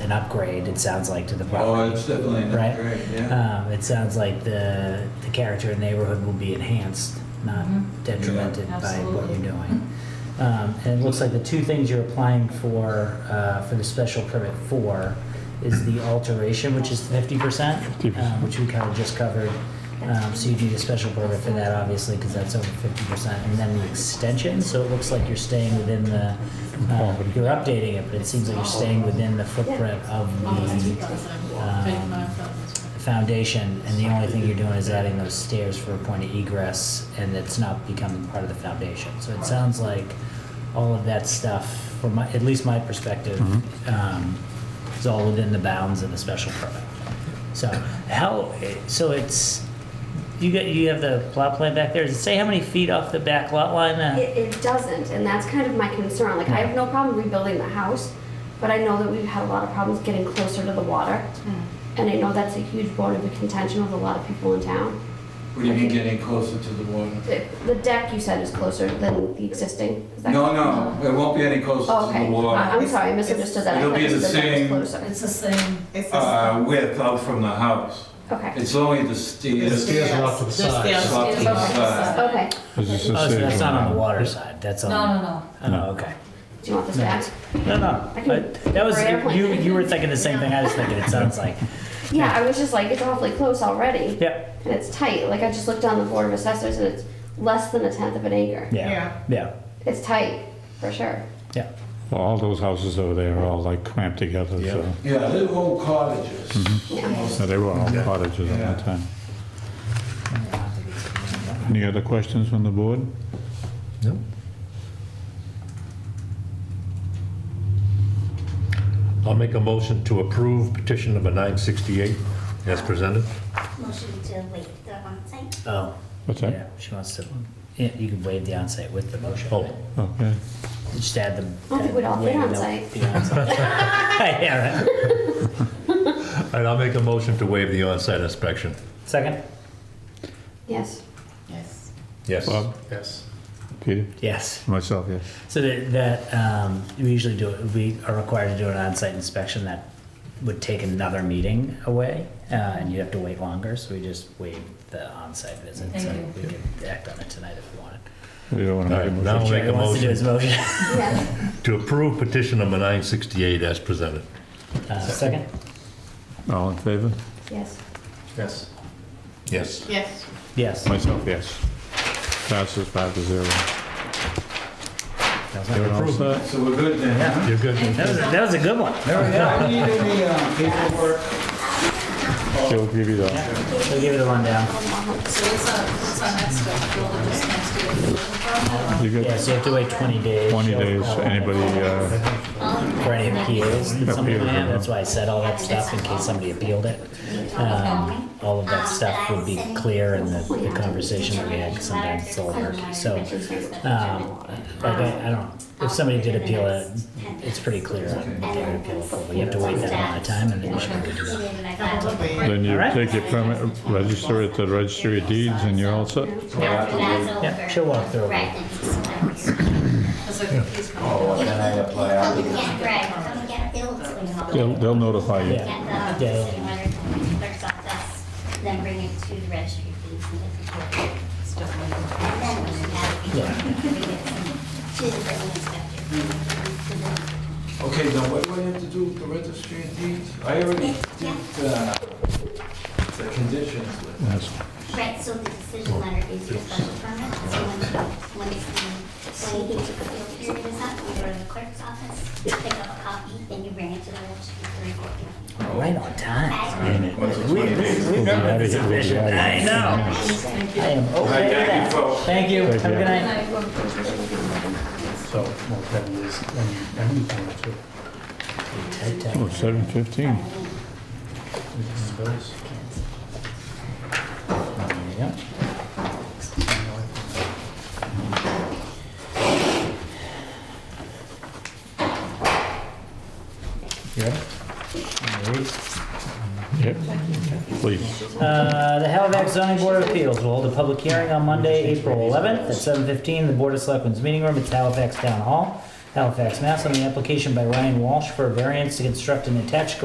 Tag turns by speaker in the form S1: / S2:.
S1: an upgrade, it sounds like, to the
S2: Oh,
S1: property.
S2: it's definitely an
S1: Right.
S2: upgrade, yeah.
S1: Um, it sounds like the, the character of the neighborhood will be enhanced, not
S3: Mhm.
S1: detrimented
S3: Yeah.
S1: by what
S3: Absolutely.
S1: you're doing. Um, and it looks like the two things you're applying for, uh, for the special permit for is the alteration, which is 50%, uh, which we kind of just covered. Um, so you need a special permit for that, obviously, because that's over 50%. And then the extension, so it looks like you're staying within the, uh, you're updating it, but it seems like you're staying within the footprint of the the foundation, and the only thing you're doing is adding those stairs for a point of egress, and it's not becoming part of the foundation. So it sounds like all of that stuff, from my, at least my perspective, um, is all within the bounds of the special permit. So how, so it's, you get, you have the plot plan back there, does it say how many feet off the back lot line? uh,
S4: It, it doesn't, and that's kind of my concern. Like, I have no problem rebuilding the house, but I know that we've had a lot of problems getting closer to the water. And I know that's a huge bone of contention with a lot of people in town.
S2: What do you mean getting closer to the water?
S4: The, the deck you said is closer than the existing. Is that
S2: No,
S4: correct?
S2: no, it won't be any
S4: Oh,
S2: closer to
S4: okay.
S2: the
S4: I-
S2: water.
S4: I'm sorry, I misunderstood that. I
S2: It'll
S4: thought
S2: be
S4: you
S2: the
S4: said that
S2: same-
S4: was closer.
S3: It's the same.
S5: It's the
S2: Uh, width out from the house.
S4: Okay,
S2: It's only the
S6: The
S2: stairs.
S6: stairs are off to the
S5: There's
S6: side.
S5: stairs.
S2: It's off to the
S4: Okay.
S2: side.
S4: okay.
S7: Is this
S1: Oh,
S7: the
S1: so
S7: same
S1: that's not on the
S7: one?
S1: water side, that's
S3: No,
S1: on.
S3: no, no.
S1: Oh, okay.
S4: Do you want this back?
S1: No, no,
S4: I can-
S1: but that was,
S4: Rare plan.
S1: you, you were thinking the same thing I was thinking, it sounds like.
S4: Yeah, I was just like, it's awfully close already.
S1: Yep.
S4: And it's tight. Like, I just looked on the Board of Assessors and it's less than a tenth of an acre.
S1: Yeah, yeah,
S4: It's tight, for sure.
S1: yeah.
S7: Well, all those houses over there are all like clamped together, so.
S2: Yeah, they're all cottages.
S4: Yeah.
S2: Mm-hmm.
S7: No, They were all cottages at that
S2: Yeah.
S7: time. Any other questions from the board?
S6: No. I'll make a motion to approve petition number 968 as presented.
S8: Motion to waive the onsite.
S1: Oh,
S7: What's
S1: yeah,
S7: that?
S1: she wants to, yeah, you can waive the onsite with the motion.
S6: Oh,
S7: Okay.
S1: Just add the.
S4: I think we'd all fit
S1: waive the-
S4: onsite.
S1: the onsite. Yeah, right.
S6: all right, I'll make a motion to waive the on-site inspection.
S1: Second?
S4: Yes.
S3: Yes.
S6: Yes.
S7: Bob?
S6: Yes.
S7: Peter?
S1: Yes.
S7: Myself, yes.
S1: So that, that, um, we usually do, it. we are required to do an onsite inspection that would take another meeting away, uh, and you'd have to wait longer, so we just waived the onsite visit.
S3: Thank
S1: so
S3: you.
S1: We could act on it tonight if we wanted.
S7: We don't want
S6: All
S7: to make a
S6: right,
S7: motion.
S6: now I'll make a
S1: Jerry wants to do his
S6: motion
S1: motion.
S4: Yeah.
S6: to approve petition number 968 as presented.
S1: Uh, second?
S7: All in favor?
S4: Yes.
S6: Yes. Yes.
S5: Yes.
S1: Yes.
S7: Myself, yes. Passes five to zero.
S1: That was my-
S7: Everyone all
S6: approved.
S7: set?
S2: So we're good then, huh?
S6: You're good.
S1: That was, a- that was a good one.
S2: All right, I need any uh, paperwork.
S7: They'll give you the,
S1: We'll give it a rundown.
S3: So what's our, what's our next step? We'll just next do a building permit
S7: you
S1: Yeah,
S7: get
S1: so you have to wait 20 days.
S7: 20 days, anybody, uh,
S1: For any appeals that somebody may have. That's why I said all that stuff in case somebody appealed it. Um, all of that stuff would be clear in the, the conversation that we had 'cause sometimes it's a little murky. So, um, like, I, I don't, if somebody did appeal it, it's pretty clear what they would appeal it for. But you have to wait that amount of time and then you should be good to go.
S7: then you
S1: Alright.
S7: take your permit, register at the registry of deeds, and you're all set.
S1: Yeah, she'll walk through.
S8: Right, then he's done.
S3: because I think he's coming.
S2: Oh, can I
S8: Come
S2: apply?
S8: and get, right, come and get billed when you have
S7: They'll,
S8: it.
S7: they'll notify you.
S1: Yeah.
S8: Get the city letter from the clerk's office, then bring it to the registry of deeds and get the bill. And then we have it to the building inspector.
S2: Okay, now what do I have to do with the registry of deeds? I already did uh, the conditions with.
S7: Yes.
S8: Right, so the decision letter is your special permit, so when, when it's, the- when you get to the appeal period is up, you go to the clerk's office, pick up a copy, then you bring it to the registry for recording.
S1: Right on time.
S2: What's the
S1: We, we,
S2: 20 days?
S1: we
S7: We'll be
S1: remember
S7: outta
S1: this
S7: here, we'll be
S1: efficient.
S7: outta here.
S1: I know. I am okay with
S2: Thank you,
S1: that. Thank you. Have a
S2: folks.
S7: Thank you.
S1: good night.
S9: So, well, that is, when you, everything, too,
S1: Tight, tight.
S7: Oh, 7:15.
S9: with the bills.
S1: There you go.
S7: Yep, please.
S1: Uh, The Halifax zoning board of appeals will hold a public hearing on Monday, April 11th at 7:15 in the Board of Selectmen's meeting room at Halifax Town Hall Halifax, Mass. on the application by Ryan Walsh for a variance to construct an attached garage